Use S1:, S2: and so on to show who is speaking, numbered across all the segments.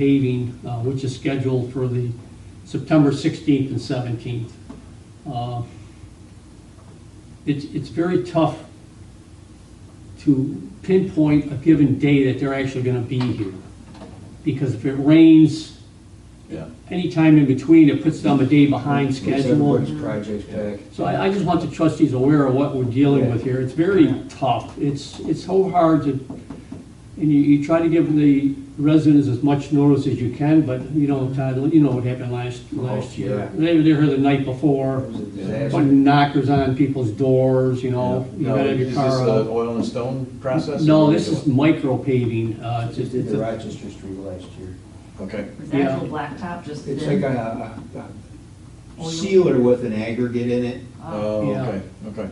S1: paving, uh, which is scheduled for the September 16th and 17th. Uh, It's, it's very tough to pinpoint a given day that they're actually going to be here. Because if it rains
S2: Yeah.
S1: anytime in between, it puts them a day behind schedule.
S2: Which projects back.
S1: So I, I just want the trustees aware of what we're dealing with here. It's very tough. It's, it's so hard to, and you, you try to give the residents as much notice as you can, but you know, Todd, you know what happened last,
S2: Oh,
S1: last year. They were there the night
S2: It
S1: before,
S2: was a disaster.
S1: putting knockers on people's doors, you know, you
S2: Now,
S1: gotta have your
S2: Is this
S1: car
S2: the
S1: out.
S2: oil and stone process?
S1: uh, No, this is micro paving, uh, it's
S3: Just
S1: just,
S3: did
S1: it's
S3: the
S1: a-
S3: Rochester Street last year.
S2: Okay.
S4: Is
S1: Yeah.
S4: that actual blacktop just
S3: It's like
S4: then?
S3: a- a, a sealer with an aggregate in it.
S4: Oh,
S2: Oh,
S1: Yeah.
S2: okay, okay,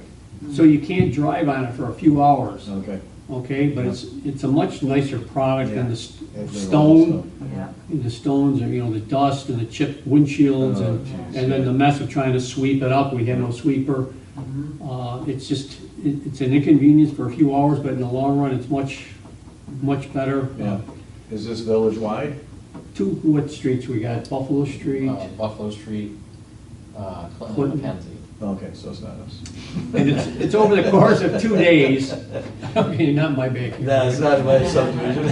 S1: so you can't drive on it for a few hours,
S2: okay.
S1: okay? But it's, it's a much nicer product than the s-
S3: Yeah.
S1: stone.
S4: Yeah,
S1: And the stones and, you know, the dust and the chipped windshields
S2: Oh,
S1: and,
S2: geez,
S1: and then
S2: yeah.
S1: the mess of trying to sweep it up, we had no sweeper.
S4: Mm-hmm.
S1: Uh, it's just, it, it's an inconvenience for a few hours, but in the long run, it's much, much better. Uh,
S2: Yeah. Is this village-wide?
S1: Two, what streets we got, Buffalo Street,
S2: Oh.
S5: uh, Buffalo Street, uh, Clinton,
S1: Clinton.
S5: and Mackenzie.
S2: Okay, so it's not us.
S1: and it's, it's over the course of two days. Okay, not my backyard.
S2: not my subdivision.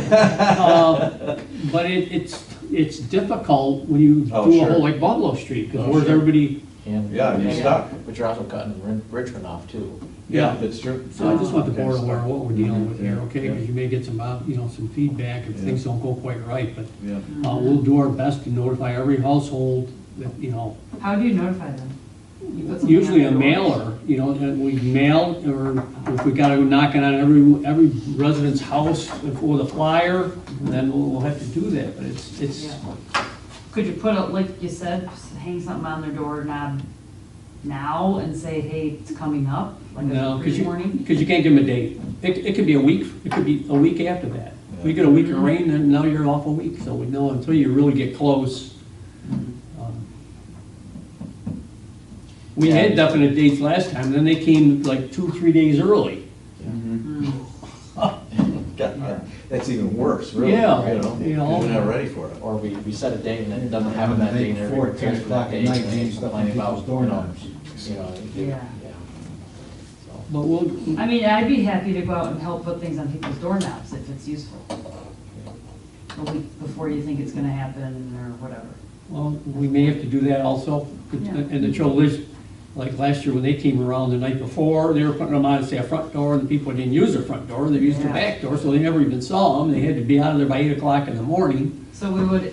S1: Uh, But it, it's, it's difficult when you do a
S2: Oh, sure.
S1: whole, like Buffalo Street, because
S2: Oh,
S1: where's
S2: sure.
S1: everybody?
S5: And-
S2: Yeah, you're stuck.
S5: But you're also cutting Rin- Richmond off too.
S2: Yeah, that's true.
S1: So I just want the
S2: Okay,
S1: board
S2: so-
S1: aware of what we're dealing with here, okay?
S2: Yeah.
S1: Because you may get some, uh, you know, some feedback if
S2: Yeah.
S1: things don't go quite right, but
S2: Yeah.
S1: uh, we'll do our best to notify every household that, you know,
S4: how do you notify them? You put something
S1: usually a
S4: on their doors?
S1: mailer, you know, that we mail, or if we gotta go knocking on every, every resident's house with a flyer, then we'll, we'll have to do that, but it's, it's,
S4: Yeah. Could you put a, like you said, s- hang something on their door knob now and say, hey, it's coming up, like
S1: no,
S4: a
S1: because
S4: free
S1: you,
S4: warning?
S1: 'cause you can't give them a date. It, it could be a week, it could be a week after that. We get a week of rain, then now you're off a week, so we know until you really get close. Um, We had definite dates last time, then they came like two, three days early.
S2: God, That's even worse, really.
S1: Yeah,
S2: You know,
S1: you
S2: you
S1: know.
S2: are not ready for it.
S5: Or we, we set a date and it doesn't happen that day and
S3: Night before,
S5: everybody
S3: ten
S5: prepares for
S3: o'clock
S5: that
S3: at
S5: day. and
S3: night,
S5: then
S3: hanging
S5: they
S3: stuff
S5: complain
S3: on people's
S5: about, you know,
S3: doorknobs.
S5: you know.
S4: Yeah.
S1: But we'll,
S4: I mean, I'd be happy to go out and help put things on people's doorknobs if it's useful. A week before you think it's gonna happen or whatever.
S1: well, we may have to do that also.
S4: Yeah.
S1: And the trouble is, like last year when they came around the night before, they were putting them on, say, a front door, and people didn't use their front door, they used their
S4: Yeah.
S1: back door, so they never even saw them. They had to be out of there by eight o'clock in the morning,
S4: So we would,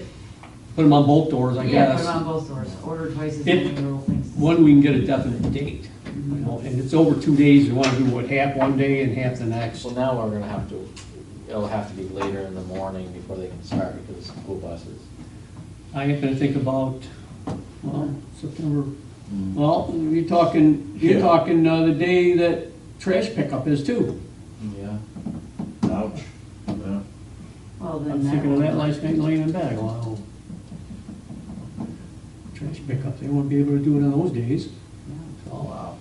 S1: put them on both doors, I
S4: yeah, put
S1: guess.
S4: it on both doors, order twice as
S1: If-
S4: many little things.
S1: One, we can get a definite date, you know, and it's over two days, we wanna do what, half one day and half the next.
S5: So now we're gonna have to, it'll have to be later in the morning before they can start because of school buses.
S1: I have to think about, well, September, well, you're talking, you're
S2: Yeah.
S1: talking uh, the day that trash pickup is too.
S5: Yeah.
S2: Ouch. Yeah.
S4: Well,
S1: I was
S4: then that
S1: thinking of that
S4: would,
S1: last night laying in bed, wow. Trash pickup, they won't be able to do it on those days.
S2: Oh,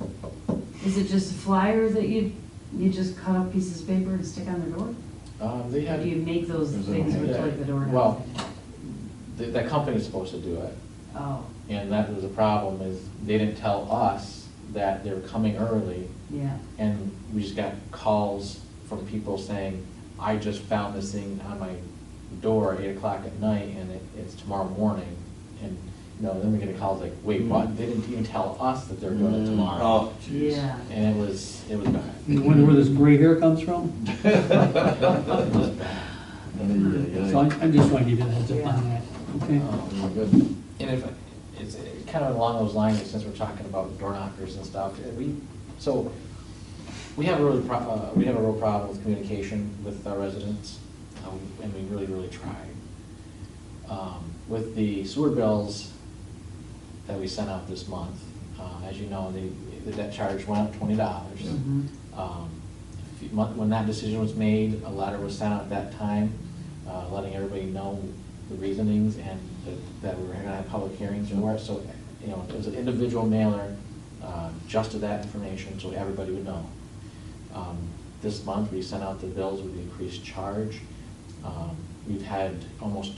S1: So,
S5: Wow.
S4: is it just a flyer that you, you just cut up pieces of paper and stick on the door?
S5: Um, they
S4: Or
S5: had.
S4: do you make those
S2: There's a-
S4: things with like the door?
S5: Well, the, the company's supposed to do it.
S4: Oh,
S5: And that was the problem is they didn't tell us that they were coming early
S4: yeah.
S5: and we just got calls from people saying, I just found this thing on my door at eight o'clock at night and it, it's tomorrow morning. And, you know, then we get a call like, wait, what? They didn't even tell us that they're doing it tomorrow.
S2: Oh, jeez.
S4: Yeah.
S5: And it was, it was bad.
S1: You wonder where this gray hair comes from?
S2: Yeah, Oh.
S1: So
S2: yeah,
S1: I'm, I'm just trying to give you a heads up on
S4: Yeah.
S1: that, okay?
S5: Um,
S2: yeah. Good.
S5: And if, it's kind of along those lines, since we're talking about door knockers and stuff, uh, we, so, we have a really, pro- uh, we have a real problem with communication with our residents, um, and we really, really try. Um, With the sewer bills that we sent out this month, uh, as you know, the, the debt charge went up twenty dollars.
S1: Mm-hmm.
S4: Mhm.
S5: Um, When that decision was made, a letter was sent out at that time, uh, letting everybody know the reasonings and that- that we were gonna have public hearings and where, so, you know, it was an individual mailer, uh, just to that information, so everybody would know. Um, This month, we sent out the bills with the increased charge. Um, we've had almost